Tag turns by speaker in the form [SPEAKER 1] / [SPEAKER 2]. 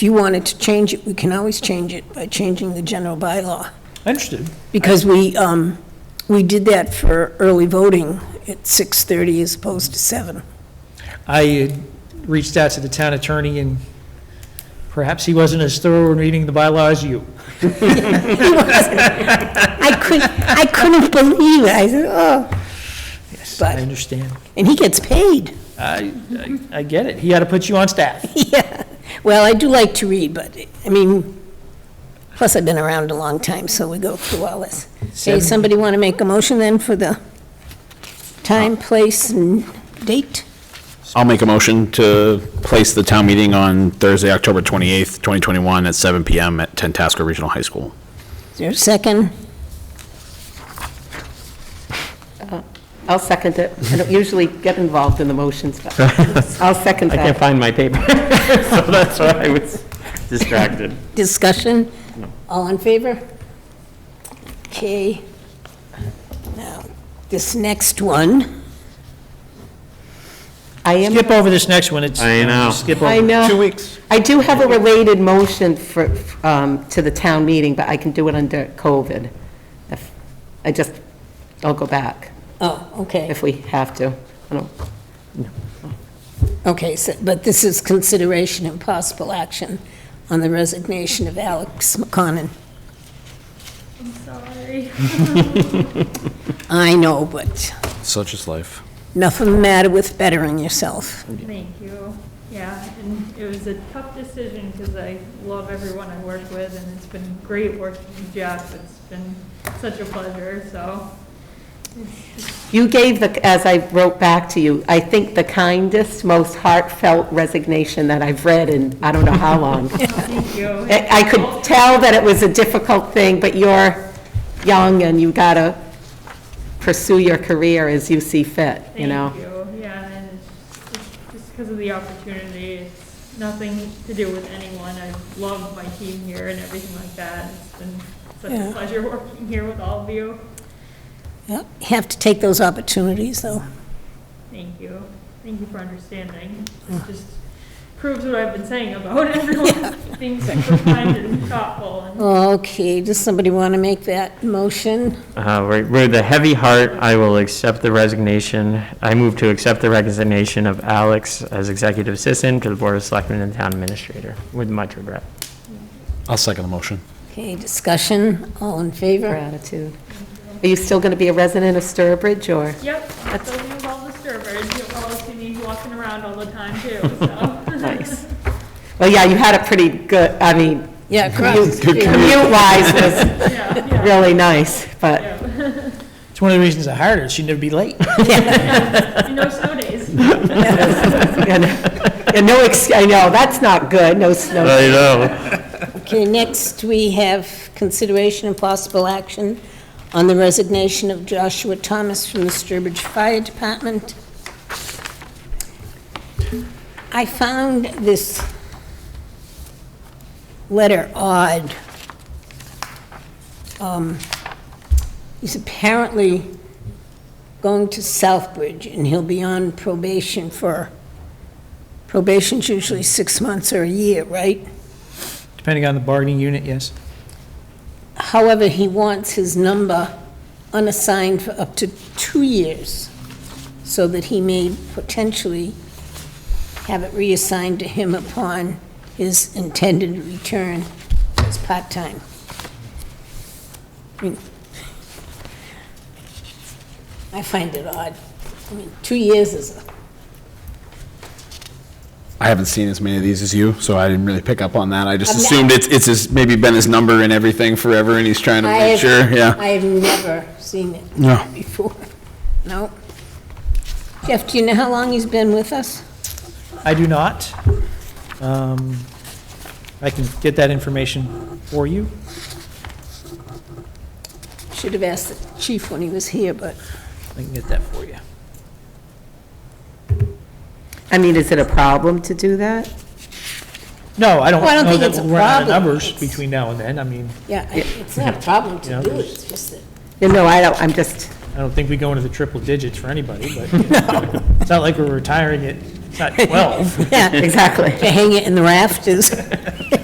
[SPEAKER 1] If you wanted to change it, we can always change it by changing the general bylaw.
[SPEAKER 2] Understood.
[SPEAKER 1] Because we, um, we did that for early voting at 6:30 as opposed to 7.
[SPEAKER 2] I had reached out to the town attorney, and perhaps he wasn't as thorough in reading the bylaw as you.
[SPEAKER 1] I couldn't, I couldn't believe it. I said, oh.
[SPEAKER 2] Yes, I
[SPEAKER 1] But-
[SPEAKER 2] understand.
[SPEAKER 1] And he gets paid.
[SPEAKER 2] I, I- I get it. He had to put you on staff.
[SPEAKER 1] Yeah. Well, I do like to read, but, I mean, plus I've been around a long time, so we go through all this. Hey,
[SPEAKER 2] Seven-
[SPEAKER 1] somebody want to make a motion then for the time, place, and date?
[SPEAKER 3] I'll make a motion to place the town meeting on Thursday, October 28th, 2021, at 7 PM at Tantasco Regional High School.
[SPEAKER 1] Is there a second?
[SPEAKER 4] I'll second it. I don't usually get involved in the motions, but I'll second
[SPEAKER 5] I can't
[SPEAKER 4] that.
[SPEAKER 5] find my paper, so that's why I was distracted.
[SPEAKER 1] Discussion? All in favor? Okay. Now, this next one,
[SPEAKER 4] I am,
[SPEAKER 2] Skip over this next one. It's.
[SPEAKER 5] I know.
[SPEAKER 2] Skip over.
[SPEAKER 4] I
[SPEAKER 2] it.
[SPEAKER 4] know.
[SPEAKER 5] weeks.
[SPEAKER 4] I do have a related motion for, um, to the town meeting, but I can do it under COVID. If I just, I'll go back
[SPEAKER 1] oh, okay,
[SPEAKER 4] if we have to. I don't,
[SPEAKER 1] okay, so, but this is consideration and possible action on the resignation of Alex McConan.
[SPEAKER 6] Sorry.
[SPEAKER 1] I know, but
[SPEAKER 3] Such is life.
[SPEAKER 1] nothing matter with bettering yourself.
[SPEAKER 6] Thank you. Yeah, and it was a tough decision because I love everyone I work with and it's been great working with Jeff. It's been such a pleasure, so.
[SPEAKER 4] You gave the, as I wrote back to you, I think the kindest, most heartfelt resignation that I've read in, I don't know how long.
[SPEAKER 6] Thank you.
[SPEAKER 4] I I could tell that it was a difficult thing, but you're young and you gotta pursue your career as you see fit, you know?
[SPEAKER 6] Thank you, yeah, and it's- it's just because of the opportunity, it's nothing to do with anyone. I love my team here and everything like that. It's been such
[SPEAKER 1] Yeah.
[SPEAKER 6] a pleasure working here with all of you.
[SPEAKER 1] Yep, Have to take those opportunities, though.
[SPEAKER 6] Thank you. Thank you for understanding. It just proves what I've been saying about everyone being super kind and thoughtful and
[SPEAKER 1] Okay, does somebody want to make that motion?
[SPEAKER 5] Uh, right, With a heavy heart, I will accept the resignation. I move to accept the resignation of Alex as executive assistant to the Board of Selectmen and Town Administrator, with much regret.
[SPEAKER 3] I'll second the motion.
[SPEAKER 1] Okay, discussion, all in favor?
[SPEAKER 4] Gratitude. Are you still gonna be a resident of Sturbridge, or?
[SPEAKER 6] Yep, that's what we all the servers. You'll always see me walking around all the time too, so.
[SPEAKER 4] Nice. Well, yeah, you had a pretty good, I mean,
[SPEAKER 1] Yeah, correct.
[SPEAKER 4] commute-wise was
[SPEAKER 6] Yeah, yeah,
[SPEAKER 4] really nice, but
[SPEAKER 6] yeah.
[SPEAKER 2] It's one of the reasons I hired her. She'd never be late.
[SPEAKER 6] And No snow days.
[SPEAKER 4] And and no, ex- I know, that's not good, no
[SPEAKER 3] Uh,
[SPEAKER 4] snow.
[SPEAKER 5] I know.
[SPEAKER 1] Okay, next we have consideration and possible action on the resignation of Joshua Thomas from the Sturbridge Fire Department. I found this letter odd. Um, He's apparently going to Southbridge, and he'll be on probation for, probation's usually six months or a year, right?
[SPEAKER 2] Depending on the bargaining unit, yes.
[SPEAKER 1] However, he wants his number unassigned for up to two years, so that he may potentially have it reassigned to him upon his intended return as part-time. I mean, I find it odd. I mean, two years is, a-
[SPEAKER 3] I haven't seen as many of these as you, so I didn't really pick up on that. I just
[SPEAKER 1] I'm not-
[SPEAKER 3] assumed it's, it's his- maybe been his number and everything forever, and he's trying to
[SPEAKER 1] I have,
[SPEAKER 3] make sure, yeah.
[SPEAKER 1] I have never seen it
[SPEAKER 3] No.
[SPEAKER 1] before. No. Jeff, do you know how long he's been with us?
[SPEAKER 2] I do not. Um, I can get that information for you.
[SPEAKER 1] Should have asked the chief when he was here, but
[SPEAKER 2] I can get that for you.
[SPEAKER 4] I mean, is it a problem to do that?
[SPEAKER 2] No, I don't
[SPEAKER 1] Well, I don't
[SPEAKER 2] know
[SPEAKER 1] think
[SPEAKER 2] that
[SPEAKER 1] it's a
[SPEAKER 2] we'll run out of
[SPEAKER 1] problem.
[SPEAKER 2] numbers
[SPEAKER 1] It's-
[SPEAKER 2] between now and then. I mean,
[SPEAKER 1] yeah, I- it's not a problem to
[SPEAKER 2] Yeah.
[SPEAKER 1] do it, it's just that,
[SPEAKER 4] No, I don't, I'm just,
[SPEAKER 2] I don't think we go into the triple digits for anybody, but you know, it's not like we're retiring at, it's not 12.
[SPEAKER 1] Yeah,
[SPEAKER 4] Exactly.
[SPEAKER 1] to hang it in the rafters.